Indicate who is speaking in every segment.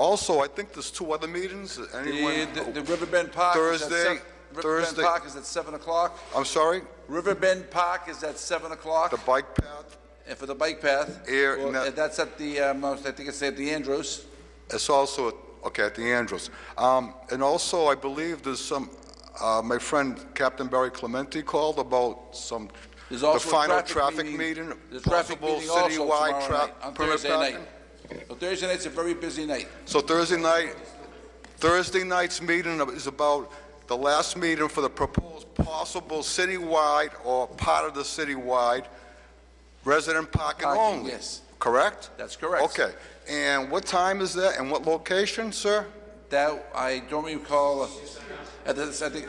Speaker 1: also, I think there's two other meetings,
Speaker 2: The,
Speaker 1: anyone,
Speaker 2: the- the Riverbend Park is at
Speaker 1: Thursday-
Speaker 2: seven... Riverbend
Speaker 1: Thursday-
Speaker 2: Park is at 7 o'clock.
Speaker 1: I'm sorry,
Speaker 2: Riverbend Park is at 7
Speaker 1: the
Speaker 2: o'clock,
Speaker 1: bike path,
Speaker 2: and for the bike path...
Speaker 1: Here,
Speaker 2: well,
Speaker 1: no.
Speaker 2: and That's at the, um, I think it's at the Andrews.
Speaker 1: it's also, okay, at the Andrews. Um, And also, I believe there's some, uh, my friend Captain Barry Clementi called about some,
Speaker 2: There's
Speaker 1: the
Speaker 2: also a
Speaker 1: final
Speaker 2: traffic meeting.
Speaker 1: meeting,
Speaker 2: There's a traffic
Speaker 1: possible
Speaker 2: meeting also tomorrow
Speaker 1: citywide
Speaker 2: night, on
Speaker 1: traffic permit
Speaker 2: Thursday night.
Speaker 1: parking.
Speaker 2: So Thursday night's a very busy night.
Speaker 1: So Thursday night, Thursday night's meeting is about the last meeting for the proposed possible citywide or part of the citywide resident parking
Speaker 2: Parking,
Speaker 1: only.
Speaker 2: yes.
Speaker 1: Correct?
Speaker 2: That's correct.
Speaker 1: Okay. And what time is that and what location, sir?
Speaker 2: That, I don't recall, uh, at the, I think,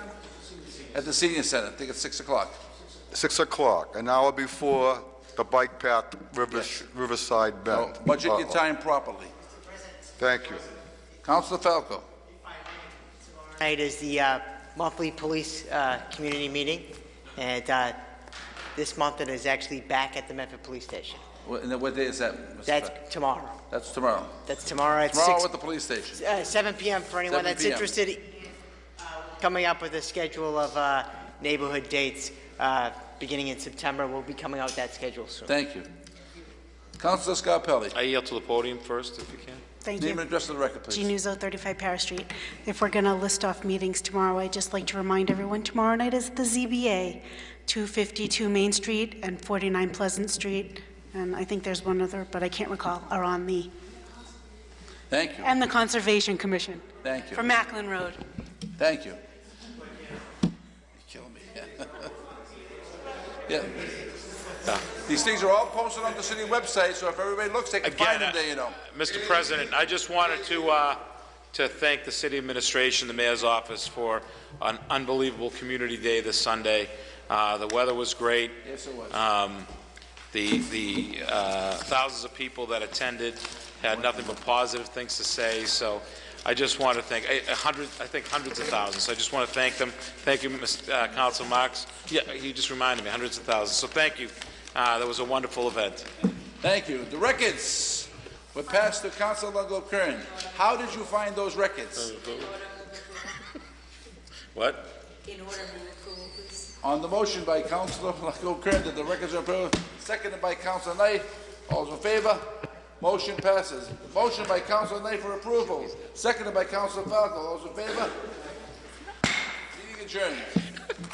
Speaker 2: at the senior center, I think it's 6 o'clock.
Speaker 1: 6 o'clock, an hour before the bike path River-
Speaker 2: Yes.
Speaker 1: Riverside
Speaker 2: So
Speaker 1: Bend.
Speaker 2: Budget your
Speaker 1: Oh, Uh-oh.
Speaker 2: time properly.
Speaker 1: Thank you.
Speaker 2: Counselor Falco.
Speaker 3: Tonight is the uh, monthly police uh, community meeting, and uh, this month it is actually back at the Medford Police Station.
Speaker 2: What, and then what day is that? Mr. Falco?
Speaker 3: That's tomorrow.
Speaker 2: That's tomorrow.
Speaker 3: That's tomorrow at
Speaker 2: Tomorrow at
Speaker 3: six,
Speaker 2: the police station.
Speaker 3: uh, seven PM for anyone
Speaker 2: 7
Speaker 3: that's
Speaker 2: PM.
Speaker 3: interested. uh, Coming up with a schedule of uh, neighborhood dates, uh, beginning in September. We'll be coming out with that schedule soon.
Speaker 2: Thank you. Counselor Scarpelli.
Speaker 4: I yield to the podium first, if you can.
Speaker 5: Thank
Speaker 2: Name and
Speaker 5: you.
Speaker 2: address of the record,
Speaker 5: Jean
Speaker 2: please.
Speaker 5: Nuzzo, 35 Paris Street. If we're going to list off meetings tomorrow, I'd just like to remind everyone, tomorrow night is the ZBA, 252 Main Street and 49 Pleasant Street, and I think there's one other, but I can't recall, are on the,
Speaker 2: Thank you,
Speaker 5: and the Conservation Commission
Speaker 2: thank
Speaker 5: for
Speaker 2: you,
Speaker 5: Macklin Road.
Speaker 2: thank you. You're killing me. Yeah. These things are all posted on the city website, so if everybody looks, they can find
Speaker 4: Again,
Speaker 2: them there, you know.
Speaker 4: Mr. President, I just wanted to, uh, to thank the city administration, the mayor's office, for an unbelievable community day this Sunday. Uh, The weather was great.
Speaker 2: Yes, it was.
Speaker 4: Um, The, the uh, thousands of people that attended had nothing but positive things to say, so I just want to thank, a a hundred, I think hundreds of thousands, so I just want to thank them. Thank you, Mr. uh, Council Marks. Yeah, you just reminded me, hundreds of thousands, so thank you. Uh, That was a wonderful event.
Speaker 2: Thank you. The records were passed to Council Longo Kern. How did you find those records?
Speaker 4: What?
Speaker 6: In order, move approval, please.
Speaker 2: On the motion by Councilor Longo Kern that the records are approved, seconded by Councilor Knight. All those in favor? Motion passes. Motion by Councilor Knight for approval, seconded by Councilor Falco. All those in favor? Meeting adjourned.